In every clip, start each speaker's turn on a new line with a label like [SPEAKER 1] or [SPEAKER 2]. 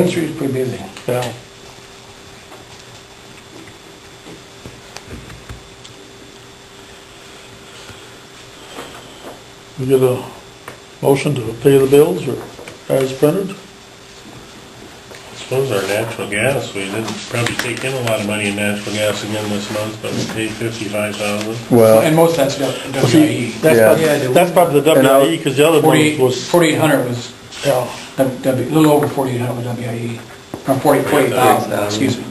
[SPEAKER 1] Main Street's pretty busy.
[SPEAKER 2] Yeah. We get a motion to pay the bills or as printed?
[SPEAKER 3] I suppose our natural gas, we didn't probably take in a lot of money in natural gas again this month, but we paid fifty-five thousand.
[SPEAKER 1] And
[SPEAKER 4] Well,
[SPEAKER 1] most of that's
[SPEAKER 2] See,
[SPEAKER 1] WIE.
[SPEAKER 2] that's probably,
[SPEAKER 1] Yeah, the-
[SPEAKER 2] that's probably the
[SPEAKER 4] And I'll-
[SPEAKER 2] WIE, because the other one
[SPEAKER 1] E. Forty-eight,
[SPEAKER 2] was,
[SPEAKER 1] forty-eight hundred was,
[SPEAKER 2] yeah,
[SPEAKER 1] W- W- a little over forty-eight hundred was WIE, or forty, forty thousand, excuse me.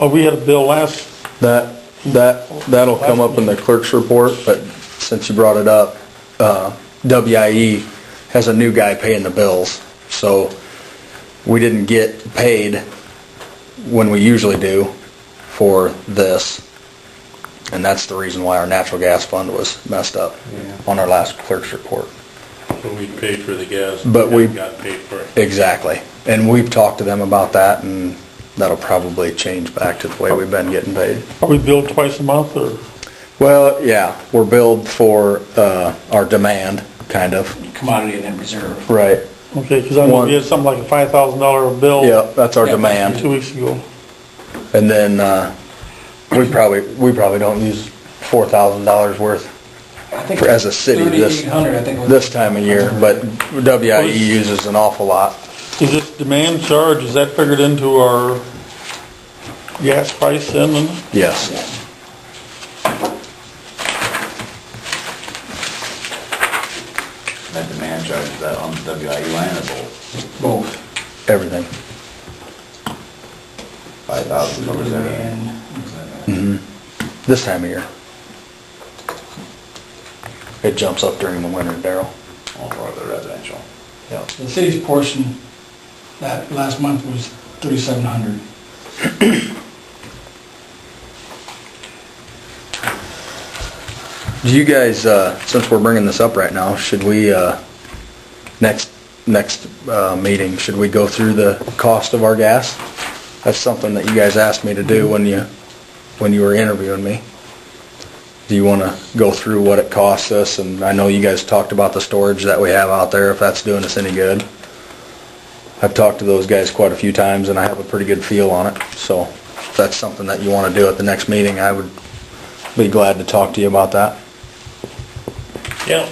[SPEAKER 2] oh, we had a bill last,
[SPEAKER 4] that, that, that'll come up in the clerk's report, but since you brought it up, uh, WIE has a new guy paying the bills, so we didn't get paid when we usually do for this. And that's the reason why our natural gas fund was messed up on our last clerk's report.
[SPEAKER 3] But we paid for the gas.
[SPEAKER 4] But we-
[SPEAKER 3] and Got paid for it.
[SPEAKER 4] Exactly. And we've talked to them about that and that'll probably change back to the way we've been getting paid.
[SPEAKER 2] are we billed twice a month or?
[SPEAKER 4] Well, yeah, we're billed for, uh, our demand, kind of.
[SPEAKER 1] Commodity and then reserve.
[SPEAKER 4] Right.
[SPEAKER 2] Okay, because I know we had something like a five thousand dollar bill.
[SPEAKER 4] Yeah, that's our
[SPEAKER 1] Yeah.
[SPEAKER 2] Two
[SPEAKER 4] demand.
[SPEAKER 2] weeks ago.
[SPEAKER 4] And then, uh, we probably, we probably don't use four thousand dollars worth
[SPEAKER 1] I think
[SPEAKER 4] For- as a city, this-
[SPEAKER 1] Thirty-eight hundred, I think. was-
[SPEAKER 4] this time of year, but WIE uses an awful lot.
[SPEAKER 2] Is this demand charge, is that figured into our gas price then? and-
[SPEAKER 4] Yes.
[SPEAKER 5] That demand charge, is that on the E WIU line is all
[SPEAKER 1] Both.
[SPEAKER 4] Everything.
[SPEAKER 5] five thousand covers everything?
[SPEAKER 1] And
[SPEAKER 4] This time of year. It jumps up during the winter, Daryl.
[SPEAKER 5] All for the residential.
[SPEAKER 4] Yeah.
[SPEAKER 1] the city's portion, that last month was thirty-seven hundred.
[SPEAKER 4] Do you guys, uh, since we're bringing this up right now, should we, uh, next, next, uh, meeting, should we go through the cost of our gas? That's something that you guys asked me to do when you, when you were interviewing me. Do you wanna go through what it costs us? And I know you guys talked about the storage that we have out there, if that's doing us any good. I've talked to those guys quite a few times and I have a pretty good feel on it, so if that's something that you wanna do at the next meeting, I would be glad to talk to you about that.
[SPEAKER 3] Yeah.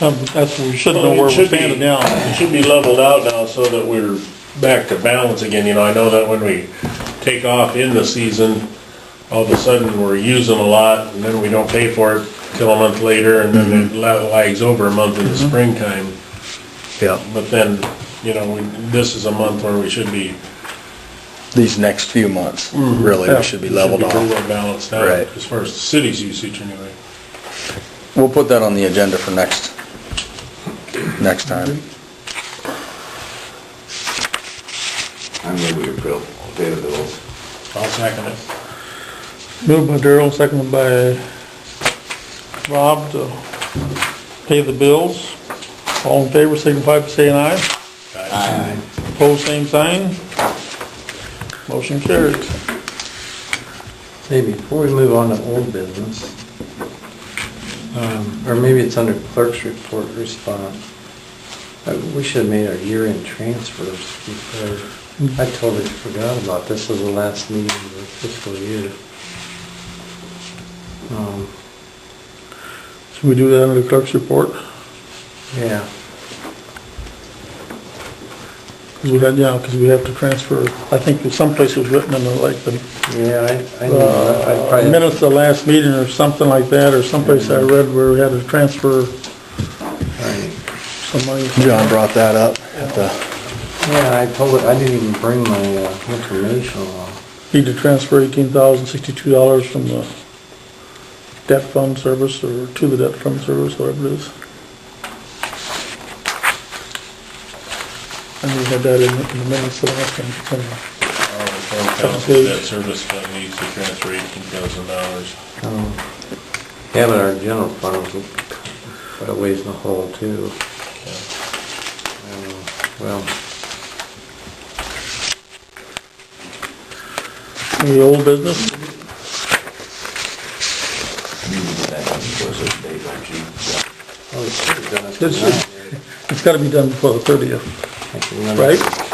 [SPEAKER 2] Um, That's, we should know
[SPEAKER 3] Well, it
[SPEAKER 2] where we're
[SPEAKER 3] should be-
[SPEAKER 2] standing now.
[SPEAKER 3] It should be leveled out now so that we're back to balance again, you know, I know that when we take off in the season, all of a sudden we're using a lot and then we don't pay for it till a month later and then
[SPEAKER 4] Mm-hmm.
[SPEAKER 3] it la- lags over a month in the springtime.
[SPEAKER 4] Yeah.
[SPEAKER 3] But then, you know, we, this is a month where we should be.
[SPEAKER 4] these next few months, really,
[SPEAKER 2] Yeah.
[SPEAKER 4] we Mm-hmm. should be leveled
[SPEAKER 3] should pretty
[SPEAKER 4] off.
[SPEAKER 3] well balanced out,
[SPEAKER 4] Right.
[SPEAKER 3] as far as the city's usage anyway.
[SPEAKER 4] We'll put that on the agenda for next, next time.
[SPEAKER 5] I move we approve, pay the bills.
[SPEAKER 3] I'll second it.
[SPEAKER 2] Moved by Daryl, seconded by Rob to pay the bills. All in favor, signify by saying aye. Opposed, same sign. Motion carried.
[SPEAKER 6] Hey, before we move on to old business, um, or maybe it's under clerk's report response, uh, we should have made our year-end transfers before, I totally forgot about this, was the last meeting of the fiscal year. Um,
[SPEAKER 2] Should we do that under the clerk's report?
[SPEAKER 6] Yeah,
[SPEAKER 2] Because we had, yeah, because we have to transfer, I think that someplace was written in the, like, the
[SPEAKER 6] yeah, I, I knew that, I
[SPEAKER 2] uh,
[SPEAKER 6] probably.
[SPEAKER 2] minutes of the last meeting or something like that, or someplace I read where we had to transfer
[SPEAKER 6] Right.
[SPEAKER 2] some money.
[SPEAKER 4] John brought that up at the,
[SPEAKER 6] Yeah, I totally, I didn't even bring my uh, information along.
[SPEAKER 2] Need to transfer eighteen thousand sixty-two dollars from the debt fund service or to the debt fund service, whatever it is. I knew we had that in the- in the minutes of the last time. somewhere.
[SPEAKER 3] Council debt service fund needs to transfer eighteen thousand dollars.
[SPEAKER 6] Um, Yeah, but our general fund was quite a ways in the hole too. Um, Well,
[SPEAKER 2] Any old business?
[SPEAKER 5] You need that, of course, it's day, don't you?
[SPEAKER 6] oh, we should have done it
[SPEAKER 2] This
[SPEAKER 6] tonight.
[SPEAKER 2] is- It's gotta be done before the thirtieth.
[SPEAKER 6] I think
[SPEAKER 7] Limits
[SPEAKER 6] Right.